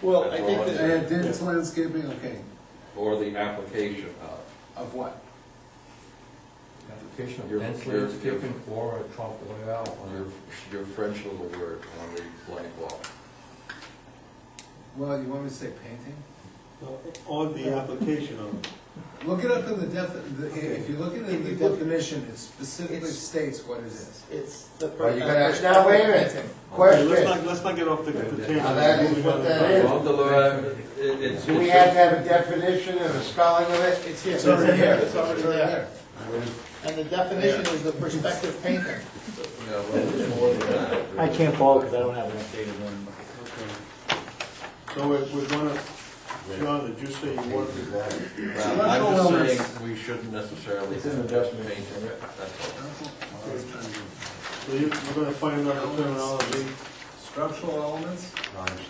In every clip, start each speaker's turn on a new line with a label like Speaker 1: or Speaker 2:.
Speaker 1: Well, I think
Speaker 2: That's all
Speaker 1: that,
Speaker 2: I
Speaker 3: And then it's landscaping, okay,
Speaker 2: or the application of.
Speaker 3: of what?
Speaker 4: Application of
Speaker 2: Your-
Speaker 4: dense
Speaker 2: your-
Speaker 4: landscaping or a trunk layout
Speaker 2: Your,
Speaker 4: or
Speaker 2: your French little word on the blank wall.
Speaker 3: Well, you want me to say painting?
Speaker 5: On the application of,
Speaker 3: Look it up in the def, the- if you look at it in the
Speaker 1: If you look-
Speaker 3: definition, it specifically
Speaker 1: It's-
Speaker 3: states what it is.
Speaker 1: it's the.
Speaker 6: Are you gonna
Speaker 1: uh,
Speaker 6: ask, now wait a minute,
Speaker 5: Okay, let's not,
Speaker 6: question,
Speaker 5: let's not get off the the tangent.
Speaker 6: Now that is what that is.
Speaker 2: Well, the, uh, it- it's-
Speaker 6: do we have to have a definition and a spelling of it?
Speaker 1: It's here.
Speaker 3: It's already here,
Speaker 1: It's already there. And the definition is the perspective painter.
Speaker 2: Yeah, well, it's more than that.
Speaker 7: I can't follow because I don't have an updated one.
Speaker 5: Okay. So we're, we're gonna, John, did you say you want to
Speaker 2: Well, I'm just saying, we shouldn't necessarily. It's an adjustment. That's all.
Speaker 5: So you, we're gonna find another terminology.
Speaker 3: Structural elements,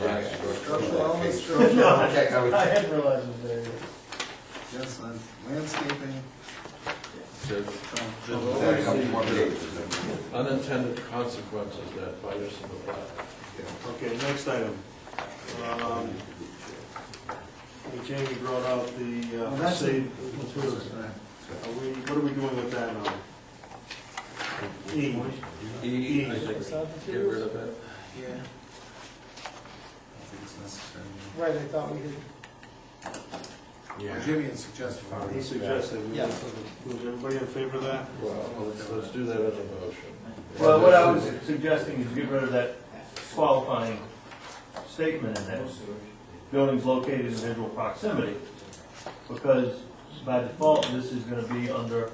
Speaker 2: Right,
Speaker 3: structural
Speaker 2: sure.
Speaker 3: elements, structural,
Speaker 6: Okay, I would-
Speaker 7: I hadn't realized it was there.
Speaker 3: yes, land- landscaping.
Speaker 2: So, Unintended consequences that bite us in the butt.
Speaker 5: Okay, next item. Um, Jamie brought out the
Speaker 3: Well,
Speaker 5: uh,
Speaker 3: that's
Speaker 5: save
Speaker 3: it.
Speaker 5: materials. Are we, what are we doing with that now? E,
Speaker 2: E, I think, get rid of it.
Speaker 1: Yeah,
Speaker 3: I don't think it's necessary.
Speaker 1: right, I thought we did.
Speaker 3: Or Jimmy had suggested.
Speaker 5: he suggested, we-
Speaker 1: Yeah.
Speaker 5: was everybody in favor of that?
Speaker 2: Well, let's, let's do that as a motion.
Speaker 7: Well, what I was suggesting is get rid of that qualifying statement in there. Buildings located in visual proximity, because by default, this is gonna be under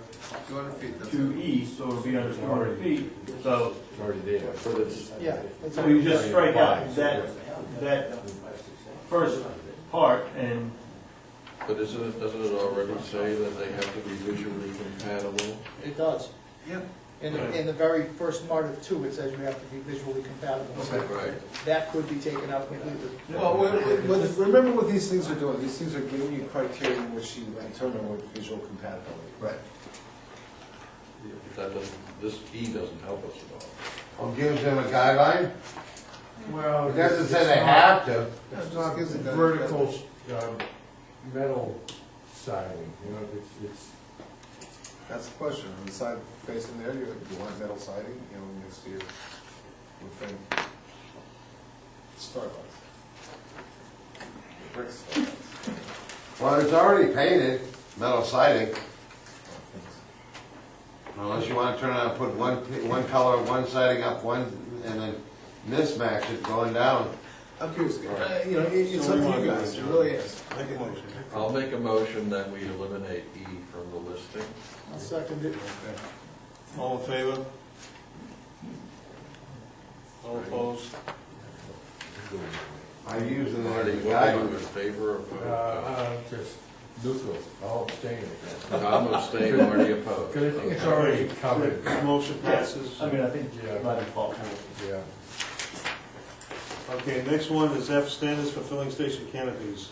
Speaker 3: Two hundred feet, that's
Speaker 7: two
Speaker 3: it.
Speaker 7: E, so it'll be under two hundred feet. So
Speaker 4: It's already there. But it's.
Speaker 1: Yeah. that's
Speaker 7: so
Speaker 1: all.
Speaker 7: you just strike out that, that first part and
Speaker 2: But isn't it, doesn't it already say that they have to be visually compatible?
Speaker 1: It does.
Speaker 3: Yep.
Speaker 1: In the, in the very first part of two, it says you have to be visually compatible. So
Speaker 2: Right.
Speaker 1: That could be taken out completely.
Speaker 3: Well, we- we- with- remember what these things are doing, these things are giving you criteria in which you determine what visual compatibility. Right.
Speaker 2: That doesn't, this E doesn't help us at all.
Speaker 6: Well, gives them a guideline,
Speaker 4: Well.
Speaker 6: it doesn't say they
Speaker 4: it's
Speaker 6: have to.
Speaker 3: That's not, gives it that-
Speaker 4: Vertical, um, metal siding, you know, it's, it's.
Speaker 3: That's the question, on the side facing there, you, you want metal siding, you know, next to your, your thing. Starbucks. Brick Starbucks.
Speaker 6: Well, it's already painted, metal siding, unless you wanna turn around and put one, pa- one color, one siding up, one, and then mismatch it going down.
Speaker 3: I'm curious, uh, you know, it- it's up to you guys, it really is.
Speaker 5: Make a motion.
Speaker 2: I'll make a motion that we eliminate E from the listing.
Speaker 1: I'll second it.
Speaker 5: All in favor? All opposed?
Speaker 6: I use it as
Speaker 2: Marty,
Speaker 6: a
Speaker 2: what are you in
Speaker 6: guideline.
Speaker 2: favor of?
Speaker 4: Uh,
Speaker 2: uh,
Speaker 4: uh, just neutral, I'll abstain.
Speaker 2: Tom abstained, Marty opposed.
Speaker 4: Because I think it's already covered,
Speaker 5: The Motion passes.
Speaker 7: I mean, I think
Speaker 4: Yeah.
Speaker 7: by default.
Speaker 4: yeah.
Speaker 5: Okay, next one is F, standards for filling station canopies.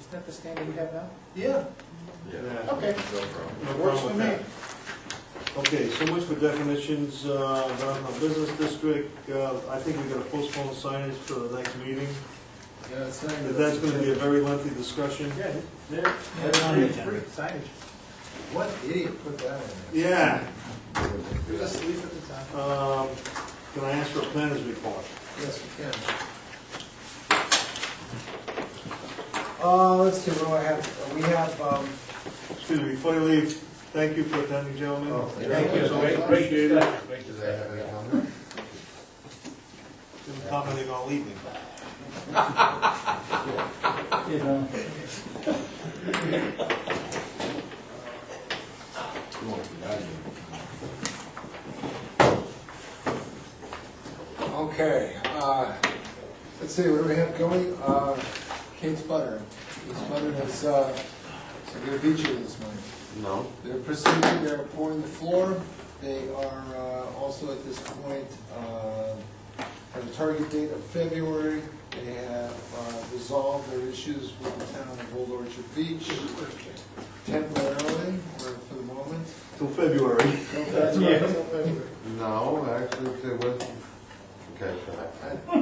Speaker 1: Isn't that the standard we have now?
Speaker 3: Yeah.
Speaker 2: Yeah,
Speaker 1: Okay.
Speaker 2: no problem.
Speaker 5: No
Speaker 1: Works
Speaker 5: problem
Speaker 1: for
Speaker 5: with that. Okay, so much for definitions, uh, downtown business district, uh, I think we gotta postpone signage for the next meeting.
Speaker 3: Yeah, it's not.
Speaker 5: But That's gonna be a very lengthy discussion.
Speaker 7: Yeah,
Speaker 3: Signage. What idiot put that in
Speaker 5: Yeah,
Speaker 3: there? Just leave it at the top.
Speaker 5: um, can I ask for a planner's report?
Speaker 3: Yes, we can. Uh, let's see, what do I have? We have, um,
Speaker 5: Excuse me, before you leave, thank you for attending, gentlemen.
Speaker 3: thank
Speaker 5: you.
Speaker 7: Great stuff.
Speaker 6: Do they have any comment?
Speaker 5: Didn't comment on all evening.
Speaker 7: You know.
Speaker 3: Okay, uh, let's see, what do we have going? Uh, Kate's Butter. Kate's Butter is, uh, they're gonna beat you this morning.
Speaker 6: No.
Speaker 3: They're proceeding, they're pouring the floor. They are uh, also at this point, uh, have a target date of February. They have uh, resolved their issues with the town of Old Orchard Beach temporarily, or for the moment.
Speaker 5: Till February.
Speaker 3: That's right.
Speaker 6: No, actually, it was, okay, so
Speaker 3: I-